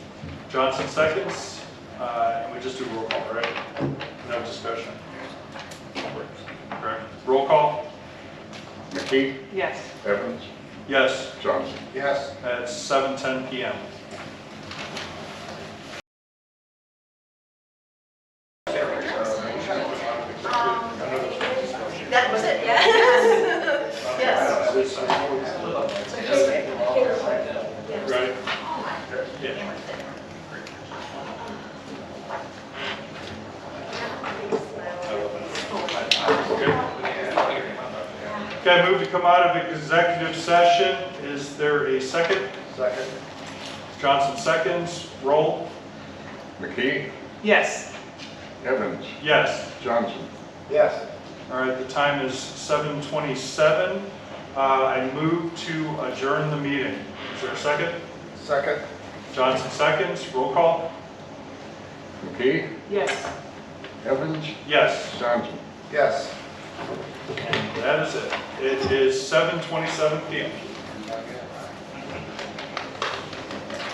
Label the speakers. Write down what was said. Speaker 1: Johnson seconds, uh, and we just do roll call, right? No discussion. Correct. Roll call?
Speaker 2: McKee,
Speaker 3: Yes.
Speaker 2: Evans,
Speaker 1: Yes,
Speaker 2: Johnson.
Speaker 4: Yes.
Speaker 1: at 7:10 PM.
Speaker 5: That was it, yes. Yes.
Speaker 1: Right? Yeah. Okay, move to come out of executive session. Is there a second?
Speaker 4: Second.
Speaker 1: Johnson seconds, roll.
Speaker 2: McKee,
Speaker 3: Yes.
Speaker 2: Evans,
Speaker 1: Yes.
Speaker 2: Johnson.
Speaker 4: Yes.
Speaker 1: All right, the time is 7:27. Uh, I move to adjourn the meeting. Is there a second?
Speaker 4: Second.
Speaker 1: Johnson seconds, roll call?
Speaker 2: McKee,
Speaker 3: Yes.
Speaker 2: Evans,
Speaker 1: Yes,
Speaker 2: Johnson.
Speaker 4: Yes.
Speaker 1: that is it. It is 7:27 PM.